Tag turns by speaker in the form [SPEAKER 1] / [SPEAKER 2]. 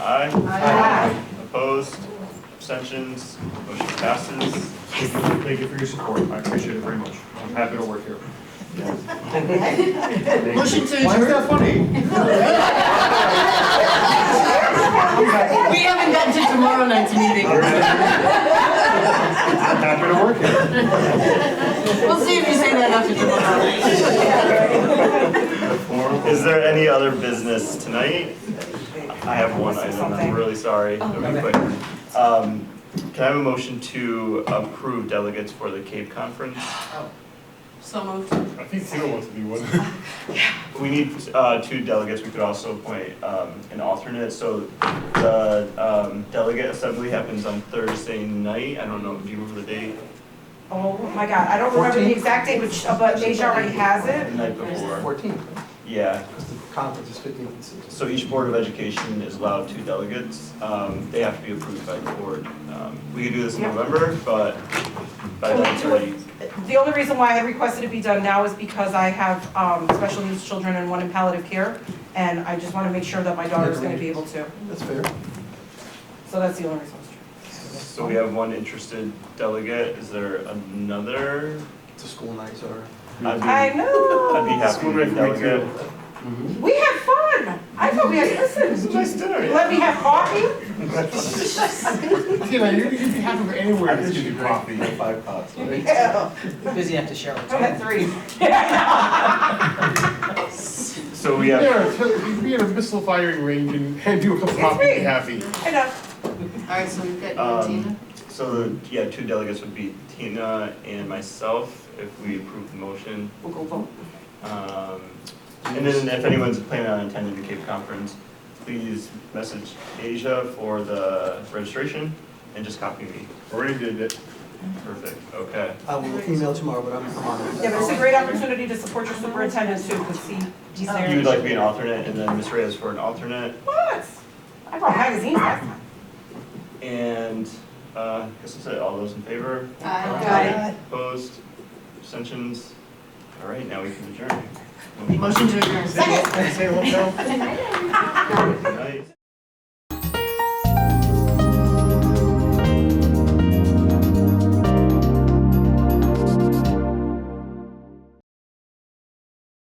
[SPEAKER 1] Aye.
[SPEAKER 2] Aye.
[SPEAKER 1] Opposed? Abstentions? Motion passes.
[SPEAKER 3] Thank you for your support. I appreciate it very much. I'm happy to work here.
[SPEAKER 4] Motion to
[SPEAKER 3] Why is
[SPEAKER 4] adjourn.
[SPEAKER 3] that funny?
[SPEAKER 4] We haven't gotten to tomorrow night's meeting.
[SPEAKER 3] I'm happy to work here.
[SPEAKER 4] We'll see if you say that after tomorrow.
[SPEAKER 1] Is there any other business tonight? I have one item, I'm really sorry. It'll be quick. Um, Can I have a motion to approve delegates for the Cape Conference?
[SPEAKER 4] So moved.
[SPEAKER 5] I think Theo wants to be one.
[SPEAKER 1] We need uh, two delegates, we could also appoint um, an alternate. So the um, delegate assembly happens on Thursday night, I don't know, do you remember the date?
[SPEAKER 2] Oh my God, I don't remember the exact date, but, uh, but Deja already has
[SPEAKER 1] The
[SPEAKER 2] it.
[SPEAKER 1] night before,
[SPEAKER 6] Fourteenth,
[SPEAKER 1] yeah.
[SPEAKER 6] because the conference is fifteenth and sixteenth.
[SPEAKER 1] So each Board of Education is allowed two delegates. Um, They have to be approved by the board. Um, We could do this in
[SPEAKER 2] Yeah.
[SPEAKER 1] November, but by
[SPEAKER 2] Can we
[SPEAKER 1] then it's
[SPEAKER 2] do it?
[SPEAKER 1] already,
[SPEAKER 2] The only reason why I requested it be done now is because I have, um, special needs children and one in palliative care, and I just wanna make sure that my daughter's gonna be able to.
[SPEAKER 6] That's fair.
[SPEAKER 2] So that's the only reason.
[SPEAKER 1] so we have one interested delegate. Is there another?
[SPEAKER 6] It's a school night, sorry.
[SPEAKER 1] I'd be,
[SPEAKER 2] I
[SPEAKER 1] I'd be
[SPEAKER 2] know.
[SPEAKER 1] happy to be delegate.
[SPEAKER 2] We had fun. I thought we had, listen,
[SPEAKER 5] Nice dinner.
[SPEAKER 2] let me have coffee.
[SPEAKER 5] Tina, you- you'd be happy for anywhere. This should be coffee.
[SPEAKER 6] Five pots, right?
[SPEAKER 2] Yeah.
[SPEAKER 7] Busy enough to share with
[SPEAKER 2] I had three.
[SPEAKER 1] So we have,
[SPEAKER 5] Yeah, so you'd be in a missile firing range and hand you a cup of coffee and be happy.
[SPEAKER 2] Enough.
[SPEAKER 4] All right, so we've got you, Tina.
[SPEAKER 1] um, so the- yeah, two delegates would be Tina and myself if we approve the motion.
[SPEAKER 2] We'll go vote.
[SPEAKER 1] Um, And then if anyone's planning on attending the Cape Conference, please message Asia for the registration and just copy me.
[SPEAKER 5] Already did it.
[SPEAKER 1] Perfect, okay.
[SPEAKER 6] I will email tomorrow, but I'm, I'm on it.
[SPEAKER 2] Yeah, but it's a great opportunity to support your superintendent too, because he, he's there.
[SPEAKER 1] You would like to be an alternate, and then Ms. Reyes for an alternate,
[SPEAKER 2] What? I brought magazines last time.
[SPEAKER 1] and uh, I guess that's it, all those in favor?
[SPEAKER 4] Aye.
[SPEAKER 1] Opposed, abstentions? All right, now we can adjourn.
[SPEAKER 4] Motion to adjourn.
[SPEAKER 5] Say hello, Cal.
[SPEAKER 1] Good night.